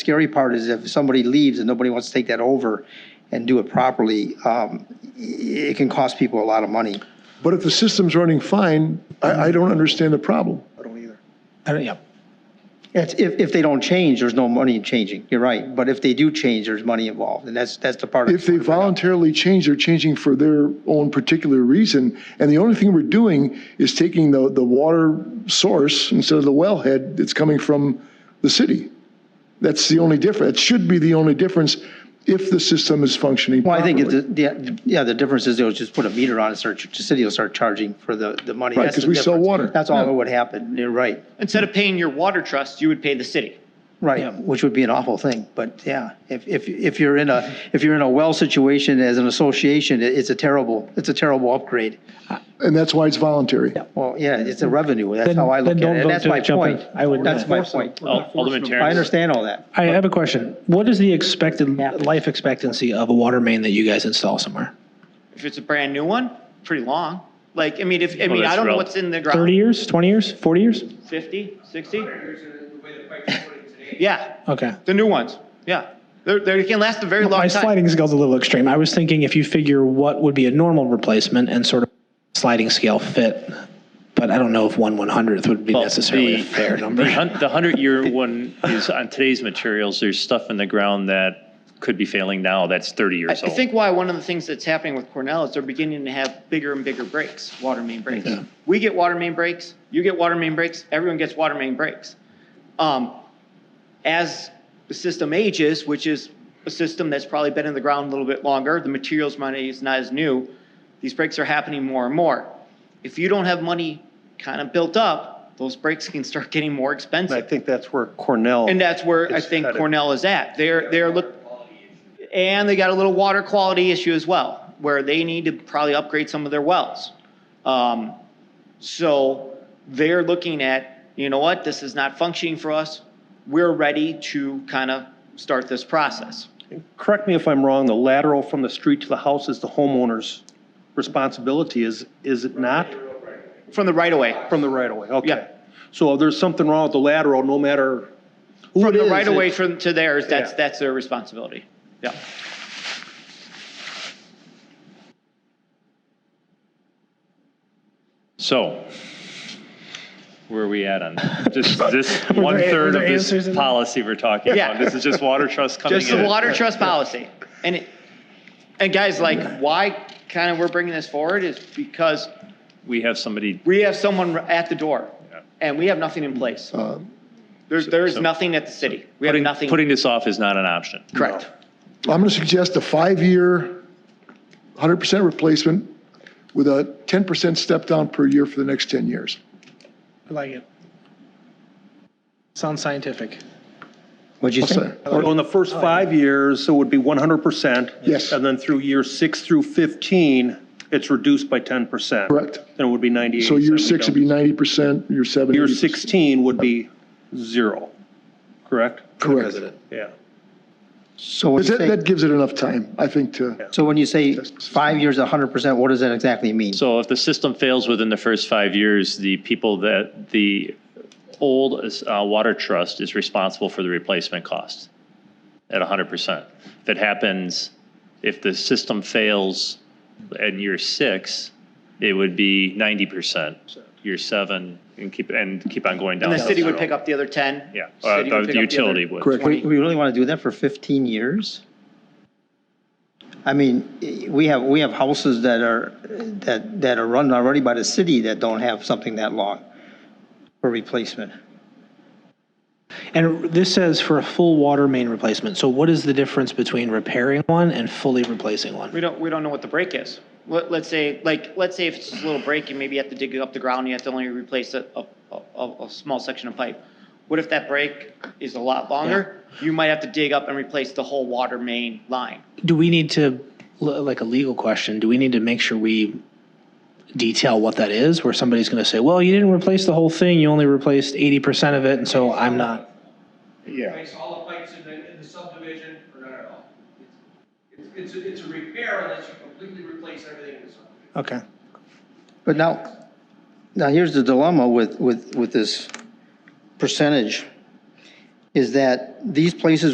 scary part is if somebody leaves and nobody wants to take that over and do it properly, um, it can cost people a lot of money. But if the system's running fine, I, I don't understand the problem. I don't, yeah. It's, if, if they don't change, there's no money in changing, you're right, but if they do change, there's money involved, and that's, that's the part. If they voluntarily change, they're changing for their own particular reason. And the only thing we're doing is taking the, the water source instead of the wellhead that's coming from the city. That's the only difference. It should be the only difference if the system is functioning Well, I think, properly. it- the- yeah, the difference is they'll just put a meter on it, start, the city will start charging for the, the money. Right, That's 'cause the we sell difference. water. That's all that would happen, you're right, Instead of paying your water trust, you would pay the city. right, which would be an awful thing, but yeah, if, if, if you're in a, if you're in a well situation as an association, it- it's a terrible, it's a terrible upgrade. And that's why it's voluntary. Well, yeah, it's a revenue, that's Then- how I look then at don't it, and vote that's to my jump in. point, I would- that's my point. Alderman I Terrence. understand all that. I have a question. What is the expected life expectancy of a water main that you guys install somewhere? If it's a brand new one, pretty long. Like, I mean, if, I mean, that's I don't know rel- what's in the 30 ground. years, 20 years, 40 years? 50, 60? Yeah, Okay. the new ones, yeah. They're, they can last a very long My time. sliding scale's a little extreme. I was thinking if you figure what would be a normal replacement and sort of sliding scale fit, but I don't know if 1 100th would be Well, necessarily a the- fair number. The hun- the 100-year one is on today's materials, there's stuff in the ground that could be failing now, that's 30 I I years old. think why one of the things that's happening with Cornell is they're beginning to have bigger and bigger breaks, water main breaks. We get water main breaks, you get water main breaks, everyone gets water main breaks. Um, as the system ages, which is a system that's probably been in the ground a little bit longer, the materials money is not as new, these breaks are happening more and more. If you don't have money kind of built up, those breaks can start getting more expensive. And I think that's where Cornell. And that's where I It's think gotta- Cornell is at. They're, they're look, and they got a little water quality issue as well, where they need to probably upgrade some of their wells. Um, so they're looking at, you know what, this is not functioning for us. We're ready to kind of start this process. Correct me if I'm wrong, the lateral from the street to the house is the homeowner's responsibility, is, is it not? From the right of way, From the right of way, Yeah. okay. So if there's something wrong with the lateral, no matter who from it the is. right of way it- from, to theirs, that's, Yeah. that's their responsibility. Yeah. So, where are we at on this, this were one-third there of answers in this there? policy we're talking Yeah. about? This is just water trust coming in? Just the water trust policy. And, it- and guys, like, why kind of we're bringing this forward is because We have somebody, we have someone at the door and we have nothing in place. Uh, There's, there's so- nothing at the city. We have putting, nothing. putting this off is not an option. Correct. I'm going to suggest a five-year, 100% replacement with a 10% step down per year for the next 10 years. I like it. Sounds scientific. What'd you What's say? that? Or Oh, in the first five years, so it would be 100%. Yes. And then through year six through 15, it's reduced by 10%. Correct. Then it would be 98. So year six would be 90%, year seven. Year 80%. 16 would be zero, correct? Correct. Yeah. So what Because do you that, say? that gives it enough time, I think, to, So when you say five years, hundred percent, what does that exactly mean? So if the system fails within the first five years, the people that, the old uh, water trust is responsible for the replacement cost at 100%. If it happens, if the system fails in year six, it would be 90%. Year seven, and keep, and keep on going down. And the city would road. pick up the other 10. Yeah, uh, City would the pick up the utility other- would. Correct. We we really want to do that for 15 years? I mean, eh, we have, we have houses that are, that, that are run already by the city that don't have something that long for replacement. And this says for a full water main replacement. So what is the difference between repairing one and fully replacing one? We don't, we don't know what the break is. Let, let's say, like, let's say if it's just a little break, you maybe have to dig up the ground, you have to only replace a, a, a, a small section of pipe. What if that break is a lot longer? You might have to dig up and replace the whole water main line. Do we need to, l- like a legal question, do we need to make sure we detail what that is? Where somebody's going to say, well, you didn't replace the whole thing, you only replaced 80% of it, and so I'm not. Makes all the pipes in the, in the subdivision, or not at all. It's, it's, a- it's a repair unless you completely replace everything in the subdivision. Okay. But now, now here's the dilemma with, with, with this percentage, is that these places